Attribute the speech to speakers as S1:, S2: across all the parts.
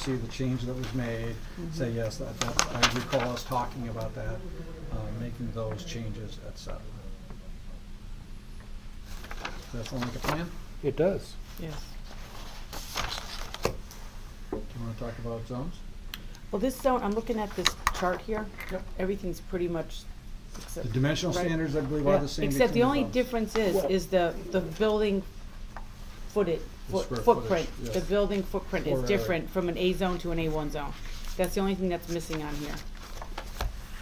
S1: see the change that was made,
S2: Mm-hmm.
S1: say, yes, that, that, I recall us talking about that, uh, making those changes, et cetera. Does that sound like a plan?
S3: It does.
S2: Yes.
S1: Do you wanna talk about zones?
S2: Well, this zone, I'm looking at this chart here.
S1: Yep.
S2: Everything's pretty much, except.
S1: The dimensional
S2: Right.
S1: standards, I believe, are
S2: Yeah,
S1: the same
S2: Except the
S1: between
S2: only
S1: zones.
S2: difference is,
S3: Well-
S2: is the, the building footed,
S1: The
S2: foot-
S1: square footage,
S2: footprint.
S1: yes.
S2: The building footprint
S1: Floor
S2: is
S1: area.
S2: different from an A zone to an A one zone. That's the only thing that's missing on here.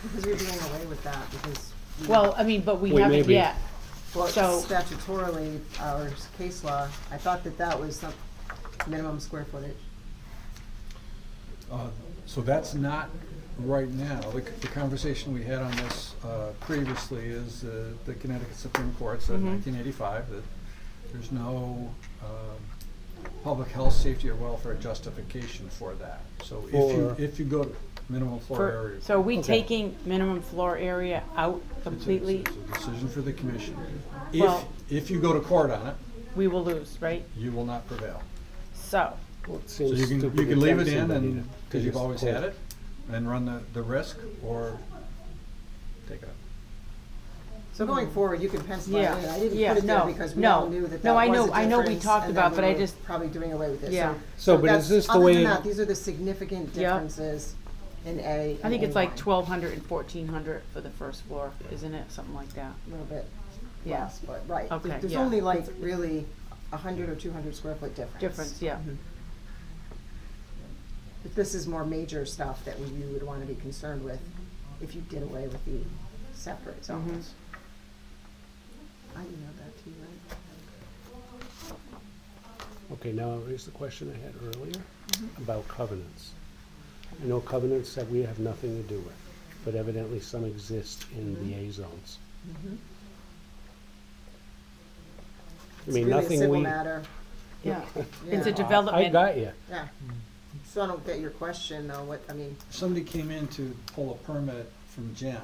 S4: Because we're doing away with that, because. we-
S1: Mm.
S2: Well, I mean, but we
S3: Wait,
S2: haven't
S3: maybe.
S2: yet.
S4: Well,
S2: so-
S4: statutorily, our case law, I thought that that was some minimum square footage.
S1: Uh, So that's not right now. The c- the conversation we had on this uh, previously is uh, the Connecticut Supreme Court said in
S2: Mhm.
S1: 1985 that there's no um, public health, safety, or welfare justification for that. So if you,
S3: For-
S1: if you go to minimum floor
S2: For-
S1: area.
S2: So are we
S3: Okay.
S2: taking minimum floor area out
S1: it's a-
S2: completely?
S1: It's a decision for the commission. If,
S2: Well-
S1: if you go to court on it,
S2: We will lose, right?
S1: you will not prevail.
S2: So,
S3: Well, it
S1: So
S3: seems
S1: you can,
S3: stupid
S1: you
S3: to
S1: can leave
S3: tell
S1: it in
S3: somebody
S1: and,
S3: to
S1: because you've
S3: just
S1: always
S3: quit.
S1: had it, and run the, the risk or take it up.
S4: So going forward, you can pencil
S2: Mm. Yeah,
S4: that in. I didn't
S2: yeah,
S4: put it there
S2: no,
S4: because we
S2: no.
S4: all knew that that
S2: No, I
S4: was a
S2: know- I know we
S4: difference,
S2: talked
S4: and
S2: about,
S4: that
S2: but
S4: we
S2: I
S4: were
S2: just-
S4: Probably doing away with it, so.
S2: Yeah.
S3: So, but
S4: that's-
S3: is this the
S4: other than
S3: way-
S4: that, these are the significant
S2: Yeah.
S4: differences in A
S2: I think
S4: and
S2: it's like
S4: A1,
S2: twelve hundred and fourteen hundred for the first floor, isn't it? Something like that.
S4: A little bit
S2: Yeah.
S4: less, but, right.
S2: Okay,
S4: There's
S2: yeah.
S4: only like really a hundred or two hundred square foot difference.
S2: Difference, yeah.
S4: But this is more major stuff that we- you would want to be concerned with if you did away with the separate
S2: Mm-hmm.
S4: zones. I emailed that to you, right?
S3: Okay, now here's the question I had earlier
S4: Mm-hmm.
S3: about covenants. I know covenants that we have nothing to do with, but evidently some exist in the
S4: Mm-hmm.
S3: A zones. I
S4: It's
S3: mean,
S4: really a
S3: nothing
S4: civil
S3: we.
S4: matter.
S2: Yeah.
S4: Yeah.
S2: It's a
S3: I
S2: development.
S3: got you.
S4: Yeah. So I don't get your question though, what, I mean,
S1: somebody came in to pull a permit from Jen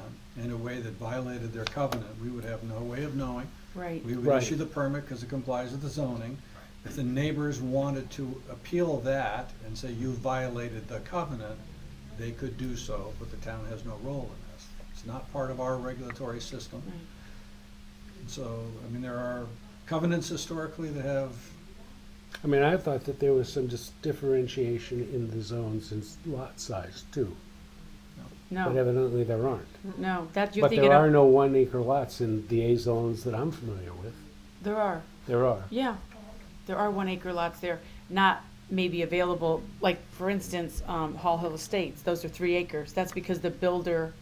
S1: in a way that violated their covenant, we would have no way of knowing.
S2: Right.
S1: We would
S3: Right.
S1: issue the permit because it complies with the zoning. If the neighbors wanted to appeal that and say you violated the covenant, they could do so, but the town has no role in this. It's not part of our regulatory system.
S2: Right.
S1: And So, I mean, there are covenants historically that have,
S3: I mean, I thought that there was some dis- differentiation in the zones and s- lot size too, but
S2: No,
S3: evidently there aren't.
S2: no, that, you're
S3: But
S2: thinking
S3: there are
S2: of,
S3: no one acre lots in the A zones that I'm familiar with.
S2: there are,
S3: There are.
S2: yeah. There are one acre lots there, not maybe available, like, for instance, um, Hall Hill Estates, those are three acres. That's because the builder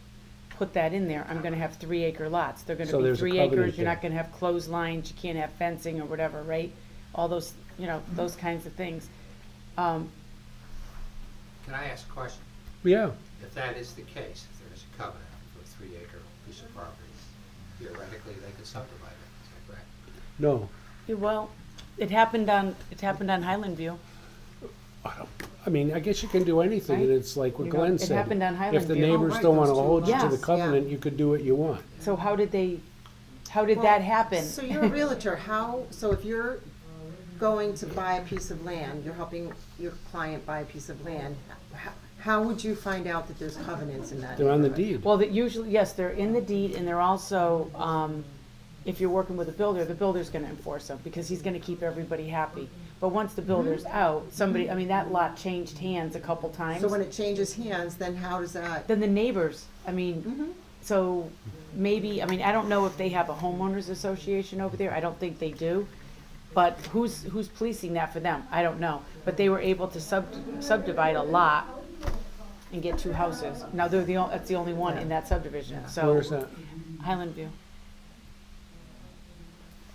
S2: put that in there, I'm gonna have three acre lots. They're
S3: So
S2: gonna be
S3: there's a
S2: three
S3: covenant
S2: acres, you're not
S3: there.
S2: gonna have closed lines, you can't have fencing or whatever, right? All those, you know, those kinds of things. Um,
S5: Can I ask a question?
S3: Yeah,
S5: If that is the case, if there is a covenant for a three acre piece of property, theoretically, they could subdivide it, is that correct?
S3: no.
S2: yeah, well, it happened on, it happened on Highland View.
S3: I mean, I guess you can do anything, and
S2: Right.
S3: it's like what
S2: You know,
S3: Glenn
S2: it
S3: said.
S2: happened on Highland
S3: If the
S2: View. Oh,
S3: neighbors
S4: right,
S3: don't want to
S4: those two
S3: hold you to
S2: lots.
S3: the
S2: Yes,
S3: covenant, you could do what you want.
S2: So how did they, how did
S4: Well,
S2: that happen?
S4: So you're a realtor, how, so if you're going to buy a piece of land, you're helping your client buy a piece of land, how, how would you find out that there's covenants in that?
S3: They're on the
S4: neighborhood?
S3: deed.
S2: Well, that usually, yes, they're in the deed and they're also, um, if you're working with a builder, the builder's gonna enforce them because he's gonna keep everybody happy. But once the builder's out, somebody, I mean, that lot changed hands a couple times.
S4: Mm-hmm. So when it changes hands, then how does that,
S2: Then the neighbors, I
S4: Mm-hmm.
S2: mean, so maybe, I mean, I don't know if they have a homeowners association over there. I don't think they do. But who's, who's policing that for them? I don't know. But they were able to sub, subdivide a lot and get two houses. Now, they're the, on- that's the only one in that subdivision, so.
S3: Where's that?
S2: Highland View.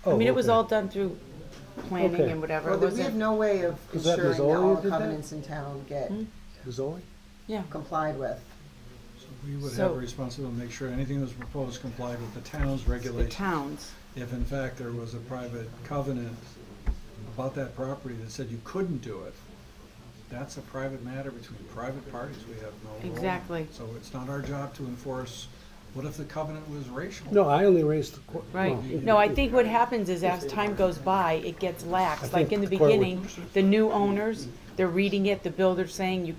S2: I
S3: Oh,
S2: mean, it was
S3: okay.
S2: all done through planning
S3: Okay.
S2: and whatever,
S4: well,
S2: it
S4: that we have
S2: wasn't,
S4: no way of
S3: Is that
S4: ensuring that
S3: Mazzoli
S4: all
S3: that did that?
S4: covenants in town get
S3: Mazzoli?
S2: yeah.
S4: complied with.
S1: we would have
S2: So-
S1: a responsibility to make sure anything that was proposed complied with the town's
S2: The
S1: regulations.
S2: towns,
S1: if in fact there was a private covenant about that property that said you couldn't do it, that's a private matter between private parties, we have no role. in it.
S2: Exactly.
S1: So it's not our job to enforce What if the covenant was racial?
S3: No, I only raised the. qu-
S2: Right.
S3: well,
S2: No, I think what happens is as time goes by, it gets
S3: I
S2: lax. Like in the
S3: think the court would-
S2: beginning, the new owners, they're reading it, the builder's saying you